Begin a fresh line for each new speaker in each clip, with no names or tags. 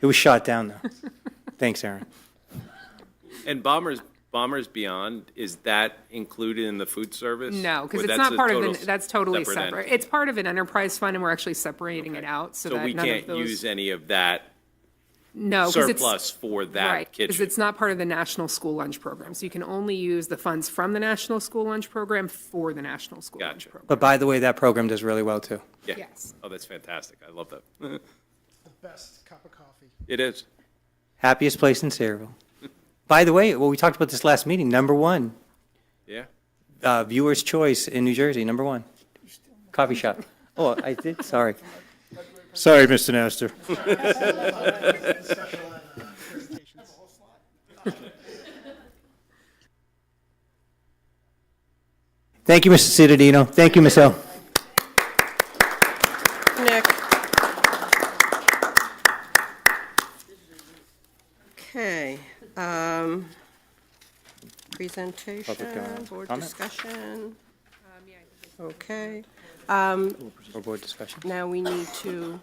It was shot down, though. Thanks, Aaron.
And Bombers, Bombers Beyond, is that included in the food service?
No, because
Or
it's
that's
not
a
part of,
total
the. that's totally
entity?
separate. It's part of an enterprise fund, and we're actually separating it out so
So
that
we
none of
can't use
those.
any of that
No, 'cause it's-
surplus for
Right,
that
because
kitchen?
it's not part of the National School Lunch Program. So you can only use the funds from the National School Lunch Program for the National School Lunch
Gotcha.
Program.
But by the way, that program does really well, too.
Yeah.
yes.
Oh, that's fantastic. I love that.
the best cup of coffee.
It is.
Happiest place in Sayreville. By the way, well, we talked about this last meeting. Number one,
Yeah.
uh, viewer's choice in New Jersey, number one. Coffee shop. Oh, I did, sorry. Sorry, Mr. Nestor. Thank you, Mr. Cittadino. Thank you, Ms. L.
Nick. Okay, um, presentation,
comment.
board
Comment?
discussion. Okay, um,
For board discussion?
now we need to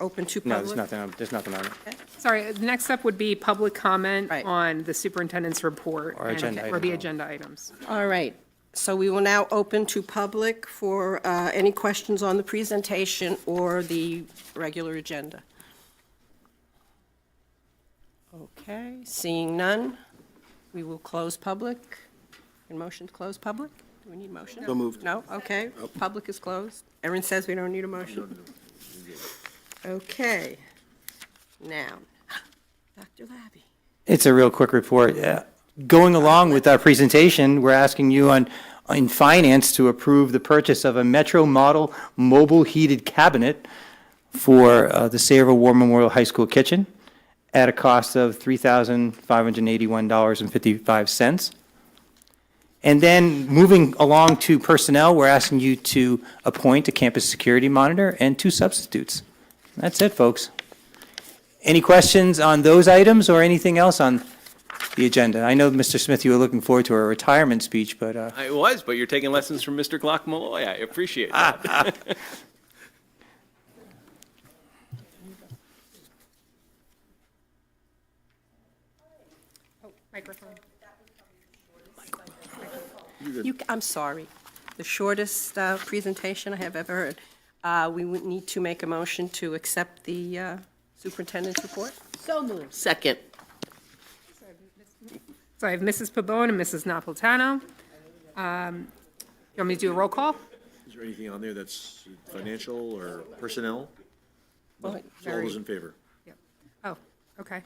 open to
No, there's
public.
nothing, on- there's nothing on it.
Sorry, the next step would be public comment
Right.
on the superintendent's report.
Or
and-
agenda
Or the
item.
agenda items.
All right, so we will now open to public for, uh, any questions on the presentation or the regular agenda. Okay, seeing none, we will close public. And motion to close public? Do we need motion? No moved. No, okay, public is closed. Erin says we don't need a motion. Okay, now, Dr. Labby.
It's a real quick report. Yeah. Going along with our presentation, we're asking you on, in finance to approve the purchase of a Metro Model Mobile Heated Cabinet for uh, the Sayreville War Memorial High School kitchen at a cost of $3,581.55. And then moving along to personnel, we're asking you to appoint a campus security monitor and two substitutes. That's it, folks. Any questions on those items or anything else on the agenda? I know, Mr. Smith, you were looking forward to a retirement speech, but uh,
I was, but you're taking lessons from Mr. Glock Malloy. I appreciate that.
Microphone.
You, I'm sorry, the shortest uh, presentation I have ever heard. Uh, We would need to make a motion to accept the uh, superintendent's report.
So moved. Second.
So I have Mrs. Pabon and Mrs. Napolitano. Um, You want me to do a roll call?
Is there anything on there that's financial or personnel?
Well,
So all those in favor?
Oh, okay.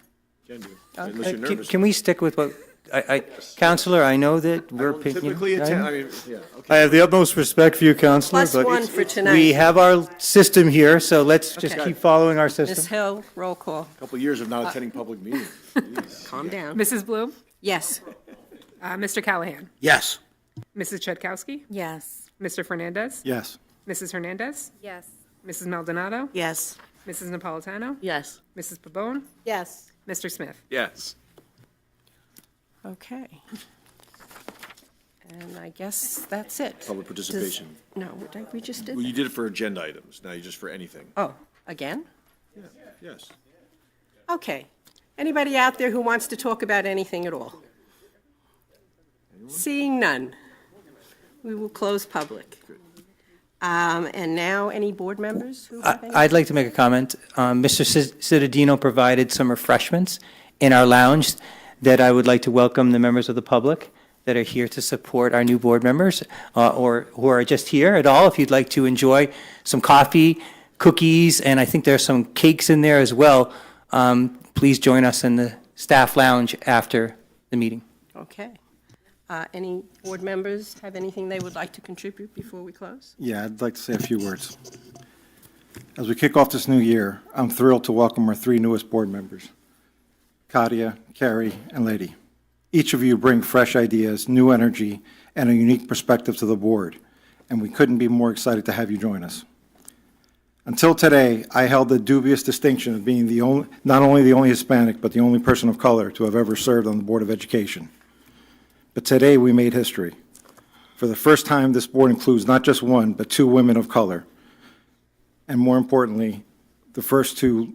Can do. Unless you're
can-
nervous.
can we stick with what, I, I, Counselor, I know that we're.
Don't
picking-
Typically
I
attend,
know.
I mean, yeah, okay.
I have the utmost respect for you, Counselor,
Plus
but
one
it's-
for
we
tonight.
have our system here, so let's just
Okay.
keep following our
Ms.
system.
Hill, roll call.
A Couple years of not attending public meetings.
Uh,
Jeez.
Calm down.
Mrs. Bloom,
Yes.
uh, Mr. Callahan,
Yes.
Mrs. Chudkowski,
Yes.
Mr. Fernandez,
Yes.
Mrs. Hernandez,
Yes.
Mrs. Maldonado,
Yes.
Mrs. Napolitano,
Yes.
Mrs. Pabon,
Yes.
Mr. Smith.
Yes.
Okay. And I guess that's it.
Public participation.
No, we- we just did
Well, you
that.
did it for agenda items, now you just for anything.
Oh, again?
Yes.
Okay. Anybody out there who wants to talk about anything at all? Seeing none, we will close public. Um, And now, any board members who have any?
I- I'd like to make a comment. Um, Mr. Ci- Cittadino provided some refreshments in our lounge that I would like to welcome the members of the public that are here to support our new board members uh, or who are just here at all. If you'd like to enjoy some coffee, cookies, and I think there's some cakes in there as well, um, please join us in the staff lounge after the meeting.
Okay. Uh, Any board members have anything they would like to contribute before we close?
Yeah, I'd like to say a few words. As we kick off this new year, I'm thrilled to welcome our three newest board members, Katia, Carrie, and Lady. Each of you bring fresh ideas, new energy, and a unique perspective to the board, and we couldn't be more excited to have you join us. Until today, I held the dubious distinction of being the only, not only the only Hispanic, but the only person of color to have ever served on the Board of Education. But today, we made history. For the first time, this board includes not just one, but two women of color. And more importantly, the first two